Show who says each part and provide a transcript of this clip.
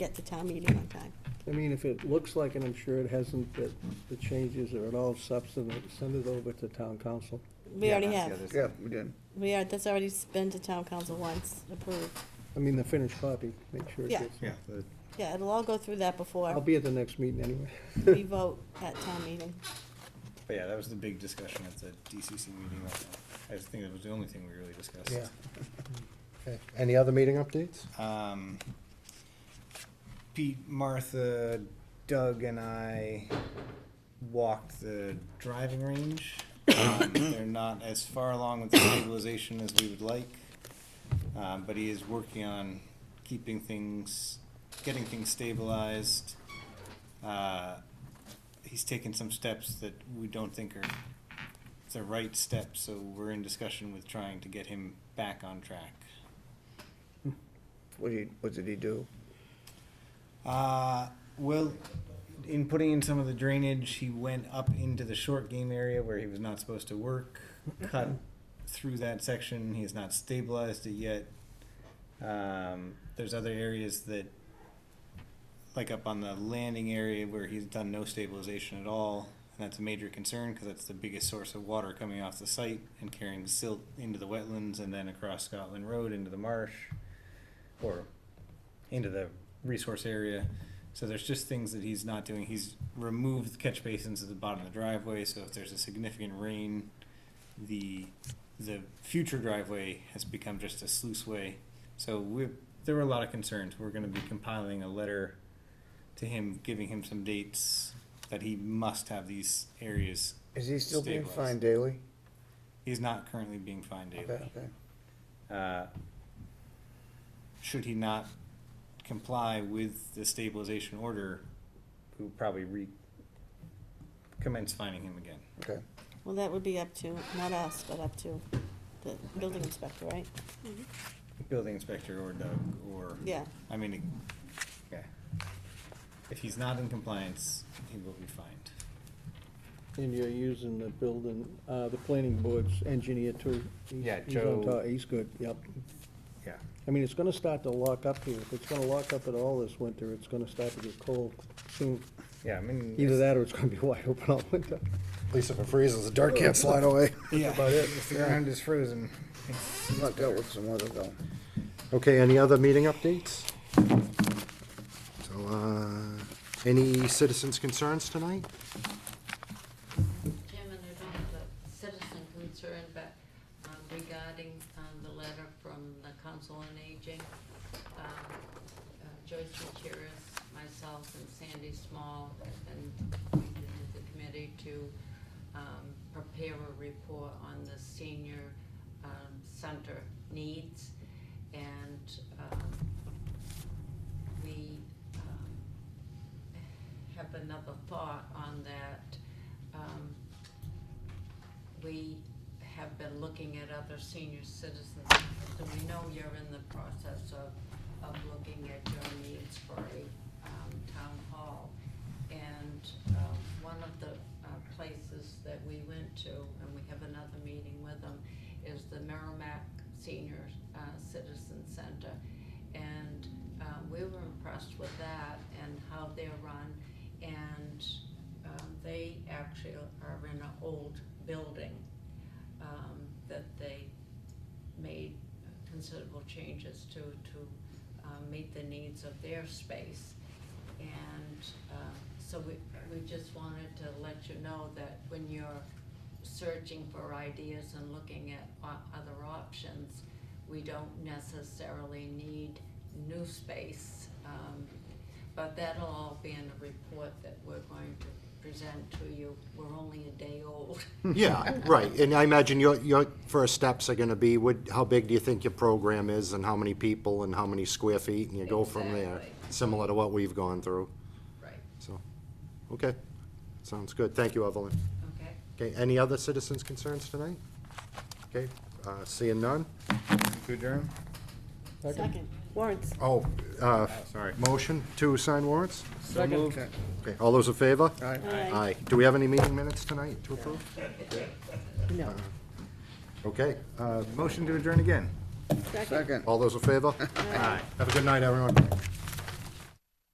Speaker 1: get to town meeting on time.
Speaker 2: I mean, if it looks like, and I'm sure it hasn't, that the changes are at all substantive, send it over to town council.
Speaker 1: We
Speaker 3: Yeah,
Speaker 1: already
Speaker 3: that's the
Speaker 1: have,
Speaker 3: other
Speaker 4: Yeah,
Speaker 3: side.
Speaker 4: we did.
Speaker 1: we are, that's already been to town council once, approved.
Speaker 2: I mean, the finished copy, make sure it
Speaker 1: Yeah.
Speaker 2: gets.
Speaker 4: Yeah, the-
Speaker 1: Yeah, it'll all go through that
Speaker 2: I'll
Speaker 1: before
Speaker 2: be at the next meeting anyway.
Speaker 1: we vote at town meeting.
Speaker 3: But yeah, that was the big discussion at the DCC meeting. last month. I just think that was the only thing we really discussed.
Speaker 5: Yeah. Okay. Any other meeting updates?
Speaker 3: Um, Pete, Martha, Doug, and I walked the driving range. Um, they're not as far along with the stabilization as we would like, um, but he is working on keeping things, getting things stabilized. Uh, he's taken some steps that we don't think are the right steps, so we're in discussion with trying to get him back on track.
Speaker 4: What did he, what did he do?
Speaker 3: Uh, well, in putting in some of the drainage, he went up into the short game area where he was not supposed to work, cut through that section. He has not stabilized it yet. Um, there's other areas that, like up on the landing area where he's done no stabilization at all. And that's a major concern because that's the biggest source of water coming off the site and carrying silt into the wetlands and then across Scotland Road into the marsh or into the resource area. So there's just things that he's not doing. He's removed catch basins at the bottom of the driveway, so if there's a significant rain, the the future driveway has become just a sluice way. So we there were a lot of concerns. We're going to be compiling a letter to him, giving him some dates that he must have these areas.
Speaker 4: Is he still being
Speaker 3: Stabilized.
Speaker 4: fined daily?
Speaker 3: He's not currently being fined daily.
Speaker 4: Okay, okay.
Speaker 3: Uh, should he not comply with the stabilization order, we will probably re- commence finding him again.
Speaker 4: Okay.
Speaker 1: Well, that would be up to, not us, but up to the building inspector, right?
Speaker 3: Building inspector or Doug or.
Speaker 1: Yeah.
Speaker 3: I mean, it- yeah. If he's not in compliance, he will be fined.
Speaker 2: And you're using the building, uh, the planning board's engineer too. He's-
Speaker 3: Yeah,
Speaker 2: he's on
Speaker 3: Joe-
Speaker 2: top. He's good, yep.
Speaker 3: Yeah.
Speaker 2: I mean, it's gonna start to lock up here. If it's gonna lock up at all this winter, it's gonna start to get cold soon.
Speaker 3: Yeah, I mean.
Speaker 2: Either that or it's gonna be wide open all winter.
Speaker 5: At least if it freezes, the dirt can't slide away.
Speaker 3: Yeah, if the ground is frozen. it's-
Speaker 4: Not dealt with some weather though.
Speaker 5: Okay, any other meeting updates? So, uh, any citizens' concerns tonight?
Speaker 6: Chairman, I don't have a citizen concern, but um, regarding um, the letter from the Council on Aging, um, uh, Joyce Gutierrez, myself, and Sandy Small, and the committee to um, prepare a report on the senior um, center needs. And um, we um, have another thought on that. Um, We have been looking at other senior citizens, so we know you're in the process of, of looking at your needs for a um, town hall. And um, one of the uh, places that we went to, and we have another meeting with them, is the Merrimack Senior uh, Citizen Center. And uh, we were impressed with that and how they're run. And um, they actually are in an old building um, that they made considerable changes to, to um, meet the needs of their space. And um, so we, we just wanted to let you know that when you're searching for ideas and looking at o- other options, we don't necessarily need new space. um, But that'll all be in a report that we're going to present to you. We're only a day old.
Speaker 4: Hmm.
Speaker 5: Yeah, right, and I imagine your, your first steps are gonna be, what, how big do you think your program is, and how many people, and how many square feet, and you go from there,
Speaker 6: Exactly.
Speaker 5: similar to what we've gone through,
Speaker 6: Right.
Speaker 5: so, okay, sounds good, thank you, Evelyn.
Speaker 6: Okay?
Speaker 5: Okay, any other citizens' concerns tonight? Okay, uh, seeing none?
Speaker 3: To adjourn?
Speaker 1: Second, warrants.
Speaker 5: Oh, uh,
Speaker 3: Sorry.
Speaker 5: motion to sign warrants?
Speaker 3: So moved.
Speaker 4: Okay.
Speaker 5: Okay, all those in favor?
Speaker 4: All right.
Speaker 1: Aye.
Speaker 5: Aye. Do we have any meeting minutes tonight to approve?
Speaker 1: No.
Speaker 5: Okay, uh,
Speaker 3: Motion to adjourn again.
Speaker 1: Second.
Speaker 4: Second.
Speaker 5: all those in favor?
Speaker 3: Aye.
Speaker 5: Have a good night, everyone.